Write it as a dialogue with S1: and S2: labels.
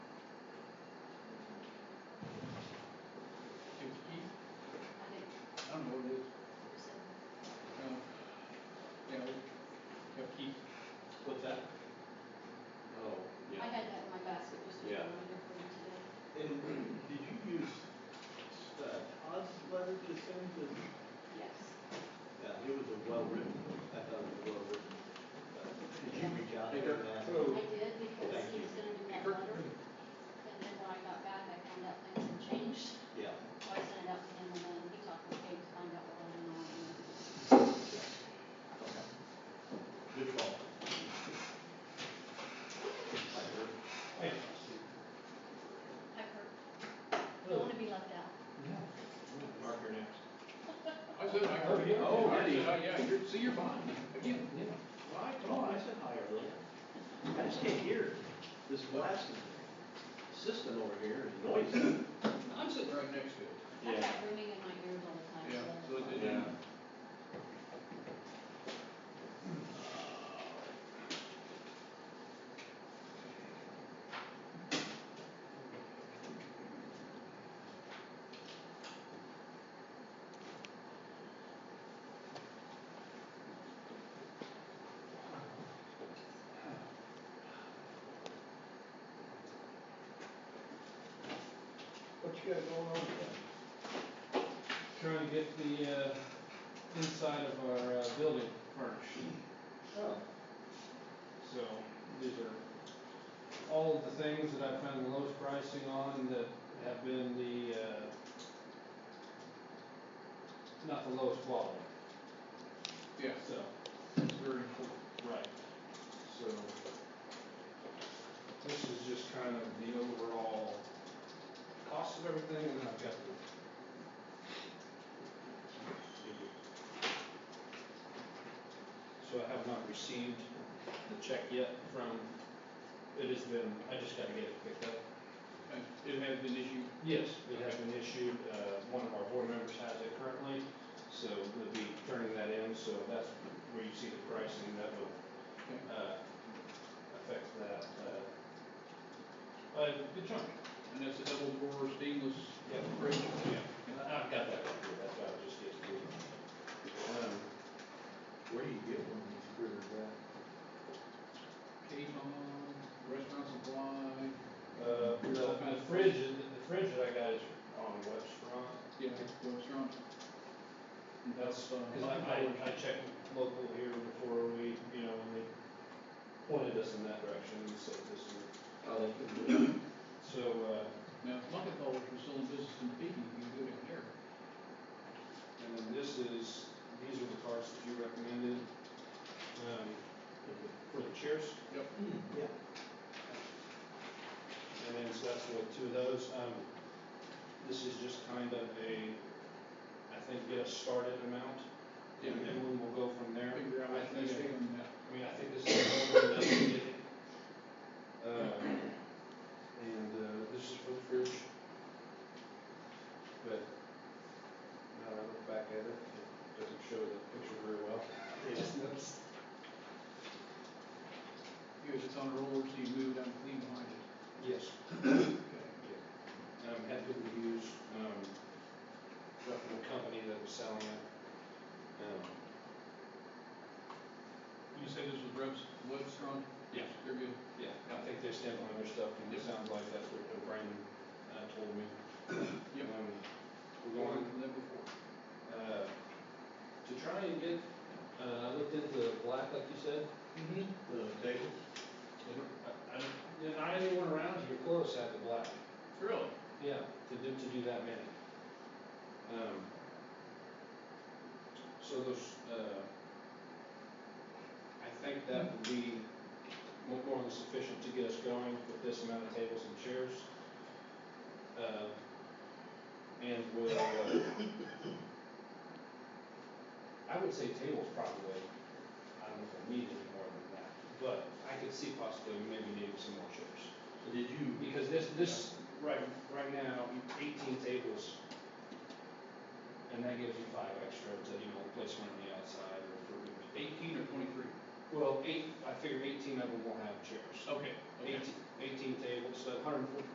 S1: Oh, And did you use uh, Todd's letter to send to,
S2: Yes.
S1: yeah, it was a well-written, I thought it was well-written. Uh, Did you reach out to
S3: Yeah.
S1: him? and ask?
S3: So-
S2: I did because
S1: Thank
S2: he
S1: you.
S2: sent it in that letter. And then when I got back, I found out things had changed.
S1: Yeah.
S2: So I sent it out to him and then he talked with Kate to find out what was going on.
S1: Okay. Good call. I heard.
S2: I've heard, don't want to be left out.
S1: Mark, you're next.
S3: I said, I heard you.
S1: Oh,
S3: I
S1: really?
S3: said, "Oh, yeah, you're, see, you're fine, again.
S1: Well, I told him, I said hi earlier. I just can't hear. This blasting system over here is noisy.
S3: I'm sitting right next to it.
S2: I've got ringing in my ears all the time,
S3: Yeah,
S2: so.
S3: so it did.
S1: Yeah.
S4: What you got going on there?
S5: trying to get the, uh, inside of our, uh, building furnished.
S4: Oh,
S5: So these are all of the things that I found the lowest pricing on that have been the, uh, not the lowest quality,
S3: Yeah,
S5: so,
S3: it's very important.
S5: right. So this is just kind of the overall cost of everything and I've got the So I have not received the check yet from, it has been, I just gotta get it picked up.
S3: And it has been issued,
S5: Yes, it has been issued, uh, one of our board members has it currently, so we'll be turning that in, so that's where you see the pricing, that will, uh, affect that, uh, uh, good chunk.
S3: and that's a double door stainless
S5: Yeah.
S3: fridge.
S5: Yeah, and I- I've got that right here, that's why I was just getting to it. Um,
S1: Where do you get one of these critters at?
S3: Kmart, Restaurant Supply,
S5: Uh, the, the fridge, is- the fridge that I got is on uh, West Front.
S3: yeah, restaurant.
S5: That's, cause I, I, I checked local here before we, you know, when they pointed us in that direction and said this is,
S1: Oh, they couldn't.
S5: so, uh,
S3: Now, if Muckatall was still in business in Pekin, you could go down there.
S5: and then this is, these are the carts that you recommended, um, for the chairs.
S3: Yep.
S1: Yeah.
S5: And then, so that's what, two of those, um, this is just kind of a, I think, get us started amount. And
S3: Yeah.
S5: then we'll go from there.
S3: Figure out
S5: I
S3: what
S5: think-
S3: they're doing now.
S5: I mean, I think this is over and done with. Uh, And, uh, this is for the fridge. But, now that I look back at it, it doesn't show the picture very well. I just noticed.
S3: It was just on a roller, so you move down clean behind it.
S5: Yes.
S3: Okay.
S5: Um, had good reviews, um, from the company that was selling it. Um,
S3: You say this was Rev's Webstron?
S5: Yeah.
S3: They're good.
S5: yeah, I think they stand behind their stuff, and it sounds like that's what Brandon, uh, told me.
S3: Yep.
S5: Um, We're going
S3: From that before.
S5: Uh, to try and get, uh, I looked into black, like you said,
S3: Mm-hmm.
S1: The table?
S5: and I, I, and I, anyone around here close have the black,
S3: Really?
S5: yeah, to do, to do that many. Um, so those, uh, I think that would be more, more than sufficient to get us going with this amount of tables and chairs. Uh, and we'll, uh, I would say tables probably, I don't know if we need any more than that, but I could see possibly maybe needing some more chairs.
S1: So Did you,
S5: Because this, this, right, right now, eighteen tables, and that gives you five extra to, you know, place one on the outside or for,
S3: Eighteen or twenty-three?
S5: well, eight, I figure eighteen of them will have chairs.
S3: Okay. Okay.
S5: Eighteen, eighteen tables, so hundred and forty